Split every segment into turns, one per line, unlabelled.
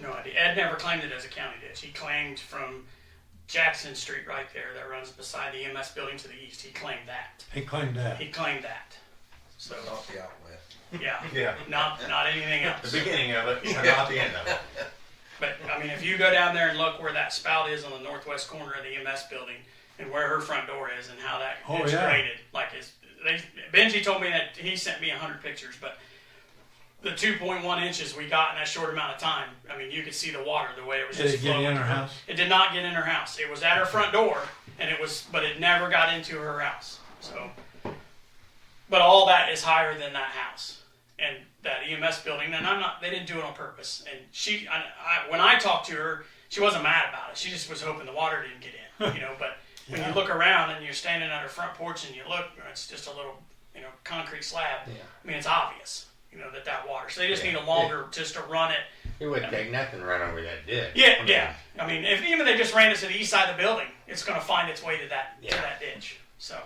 No idea. Ed never claimed it as a county ditch. He claimed from Jackson Street right there that runs beside the MS building to the east. He claimed that.
He claimed that.
He claimed that. So
Not the outlet.
yeah,
Yeah.
not not anything
The
else.
beginning of it, and not the end of it.
But I mean, if you go down there and look where that spout is on the northwest corner of the MS building and where her front door is and how that
Oh,
it's
yeah.
graded, like it's, they, Benji told me that he sent me hundred pictures, but the 2.1 inches we got in that short amount of time, I mean, you could see the water the way it was
Did it
just
get
flowing.
in her
through.
house?
It did not get in her house. It was at her front door, and it was, but it never got into her house. So, but all that is higher than that house and that EMS building. And I'm not, they didn't do it on purpose. And she, I, I, when I talked to her, she wasn't mad about it. She just was hoping the water didn't get in, you know. But when
Yeah.
you look around and you're standing on her front porch and you look, you know, it's just a little, you know, concrete slab. I mean, it's obvious, you know, that that water. So they just
Yeah.
need a longer, just to run it
It wouldn't take nothing right over that ditch.
yeah,
I mean,
yeah. I mean, if even they just ran it to the east side of the building, it's going to find its way to that to
Yeah.
that ditch. So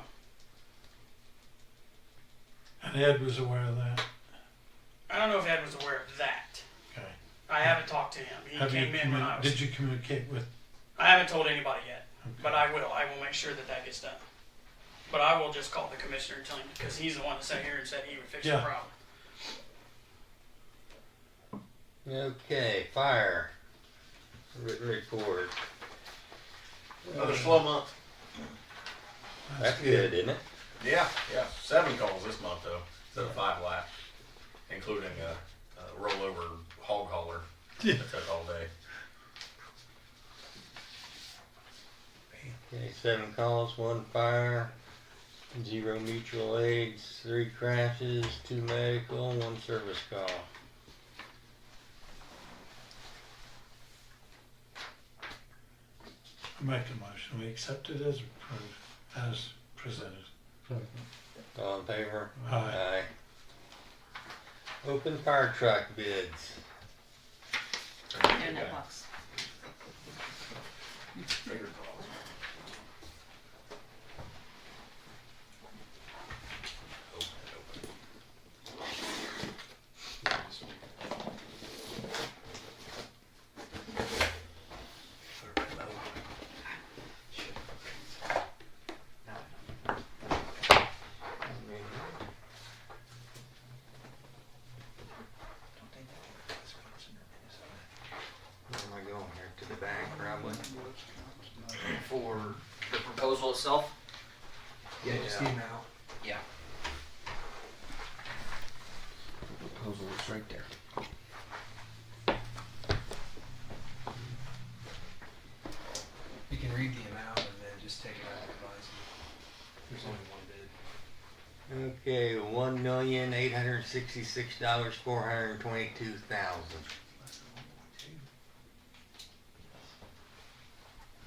And Ed was aware of that.
I don't know if Ed was aware of that.
Okay.
I haven't talked to him. He
Have you
came in when I
commu-
was.
Did you communicate with?
I haven't told anybody yet, but I will. I will make sure that that gets done. But I will just call the commissioner and tell him because he's the one that sat here and said he would fix
Yeah.
the problem.
Okay, fire. Written report.
Another slow month.
That's good, isn't it?
Yeah, yeah. Seven calls this month though, instead of five last, including a, a rollover hog hauler that took all day.
Okay, seven calls, one fire, zero mutual aids, three crashes, two medical, one service call.
Make a motion. We accept it as approved, as presented.
All in favor?
Aye.
Aye. Open fire truck bids.
They're in that box.
Finger calls. Open it, open it.
Where am I going here? To the back, probably?
for the proposal itself.
Yeah, just email.
Yeah.
Proposal is right there. You can read the amount and then just take it out of advisement. There's only one bid.
Okay, one million, eight hundred and sixty-six dollars, four hundred and twenty-two thousand.
Less than one point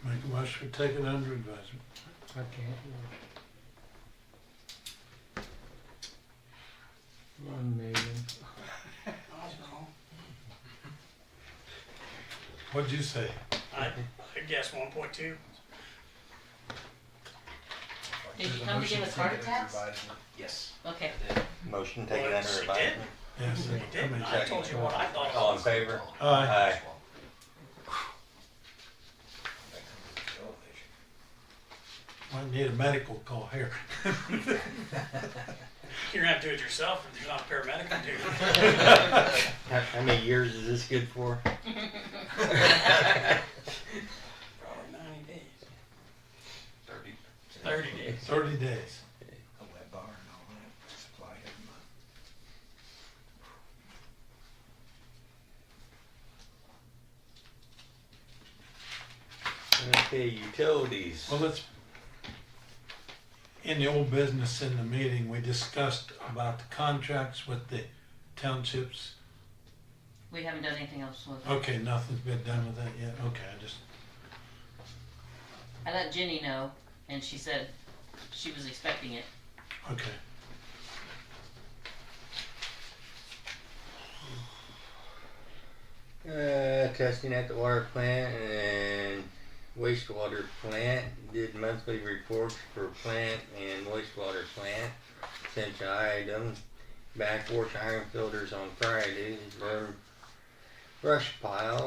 two.
Make a motion. We take it under advisement. What'd you say?
I, I guess 1.2.
Did
There's
you
a
come to
motion
give us heart
take it under
attacks?
advisement. Yes.
Okay.
Motion taken
Well,
under
she
advisement.
Yes. uh,
He did.
I mean,
I told you what I thought.
All in favor?
Aye.
Aye.
Might need a medical call here.
You're gonna have to do it yourself if there's not a paramedic to do it.
How, how many years is this good for?
Probably 90 days.
Thirty.
30 days.
Thirty days.
A wet bar and all that, supply every month.
Okay, utilities.
Well, let's. In the old business in the meeting, we discussed about the contracts with the townships.
We haven't done anything else with it.
Okay, nothing's been done with that yet. Okay, I just,
I let Jenny know, and she said she was expecting it.
okay.
Uh, testing at the water plant and wastewater plant. Did monthly reports for plant and wastewater plant. Essential items. Backwash iron filters on Friday. Burn brush pile